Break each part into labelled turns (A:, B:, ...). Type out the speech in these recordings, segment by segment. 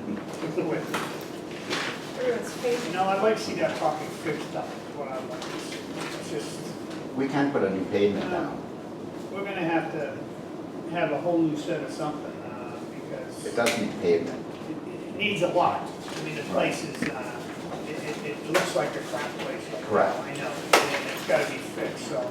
A: do it.
B: Everyone's
A: You
B: favorite.
A: know, I'd like to see that pocket fixed up, is what I'd like to see. It's just,
C: We can't put a new pavement down.
A: we're gonna have to have a whole new set of something, uh, because
C: It
A: it-
C: does need pavement.
A: it needs a lot. I mean, the place is, uh, it, it, it looks like a crap place.
C: Correct.
A: I know, and it's gotta be fixed, so.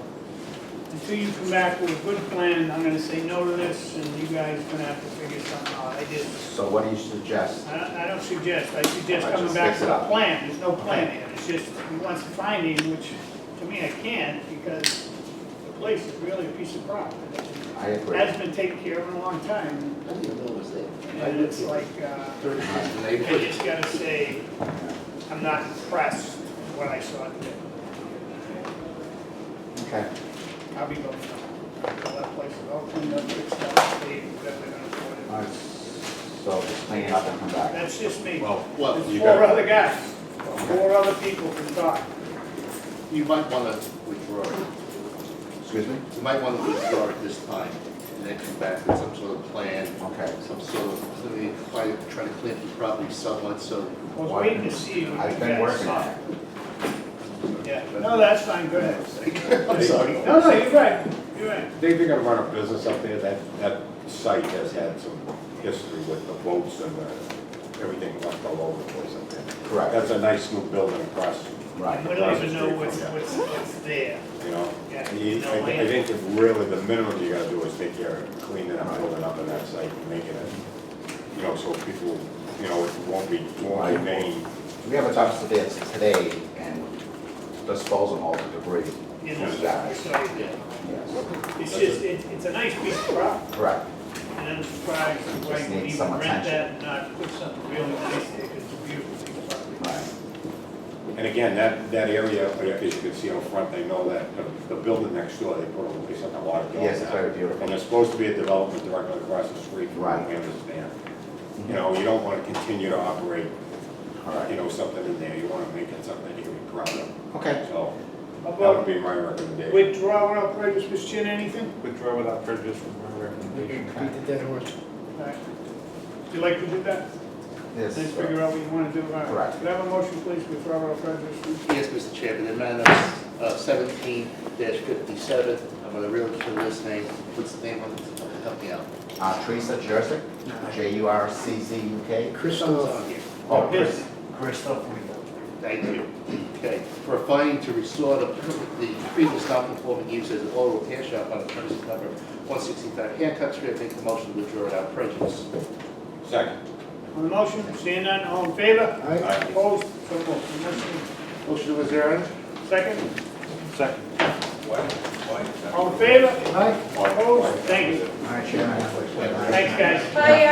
A: Until you come back with a good plan, I'm gonna say no to this, and you guys are gonna have to figure something out. I did
C: So what do you suggest?
A: I don't, I don't suggest, I suggest
C: Alright,
A: coming
C: just
A: back
C: fix
A: with
C: it
A: a
C: up.
A: plan, there's no plan here, it's just, he wants a finding, which, to me, I can't, because the place is really a piece of crap.
C: I agree.
A: Has been taken care of in a long time,
D: I didn't know it was there.
A: and it's like, uh,
D: And
A: I
D: they put
A: just gotta say, I'm not impressed with what I saw today.
C: Okay.
A: I'll be going, Well, that place is all cleaned up, fixed up, paved, whatever they're gonna
C: All
A: put
C: right. So just clean it up and come
A: in.
C: back.
A: That's just me.
D: Well, well,
A: There's
D: you
A: four
D: got,
A: other guys, four other people can talk.
D: you might wanna withdraw,
C: Excuse me?
D: you might wanna withdraw at this time, and then come back with some sort of plan,
C: Okay.
D: some sort of, let me try, try to clean up the property somewhat, so.
A: I was waiting to see what you
C: I've been
A: guys
C: working on
A: saw.
C: it.
A: Yeah, no, that's fine, go ahead.
D: I'm sorry.
A: No, no, you're right, you're right.
E: They've been gonna run a business up there, that, that site has had some history with the boats and the, everything left all over the place up there.
C: Correct.
E: That's a nice new building across,
C: Right.
A: We don't even know what's, what's, what's there.
E: you know?
A: Yeah,
E: You-
A: no
E: I, thi- I
A: land.
E: think if really the minimum you gotta do is take care of cleaning up, building up on that site and making it, you know, so people, you know, it won't be, won't be main.
C: We have a talk to this today and dispose of all the debris.
A: You know,
C: Who's that?
A: so, yeah.
C: Yes.
A: It's just, it, it's a nice piece of property,
C: Correct.
A: and I'm surprised Frank would
C: needs
A: even
C: some
A: rent
C: attention.
A: that and not put something really nice there, 'cause it's a beautiful piece of property.
C: Right.
E: And again, that, that area, as you can see out front, they know that, the- the building next door, they put a, they sent a lot of.
C: Yes, it's
E: dogs out.
C: very beautiful.
E: And there's supposed to be a development directly across the street from
C: Right.
E: where we understand. You know, you don't wanna continue to operate,
C: All
E: you
C: right.
E: know, something in there, you wanna make it something that you can be proud of.
C: Okay.
E: So,
A: How
E: that would
A: About
E: be my recommendation.
A: withdrawal of prejudice, Mr. Chin, anything?
F: Withdraw without prejudice from my recommendation.
A: All right. You like to do that?
C: Yes.
A: Then figure out what you wanna do, all right.
C: Correct.
A: Could I have a motion, please, withdrawal of prejudice?
D: Yes, Mr. Chairman, in matter uh, seventeen fifty-seven, I'm gonna really kill this name, what's the name of it, help me out.
C: Uh, Teresa Jurcik, J U R C Z U K.
D: Crystal's on here.
C: Oh, Chris.
D: Thank you. Okay, for a finding to restore the, the previous non-conforming use as an oral repair shop on the premises number one sixty-five Hancock Street, I make the motion to withdraw without prejudice.
E: Second.
A: On the motion, seeing none, all in favor?
E: Aye.
A: Opposed? So moved. Motion
D: Motion to adjourn?
A: Second,
F: Second.
A: all in favor?
E: Aye.
A: Opposed? Thank you.
C: All right, Chairman.
A: Thanks, guys.
B: Bye,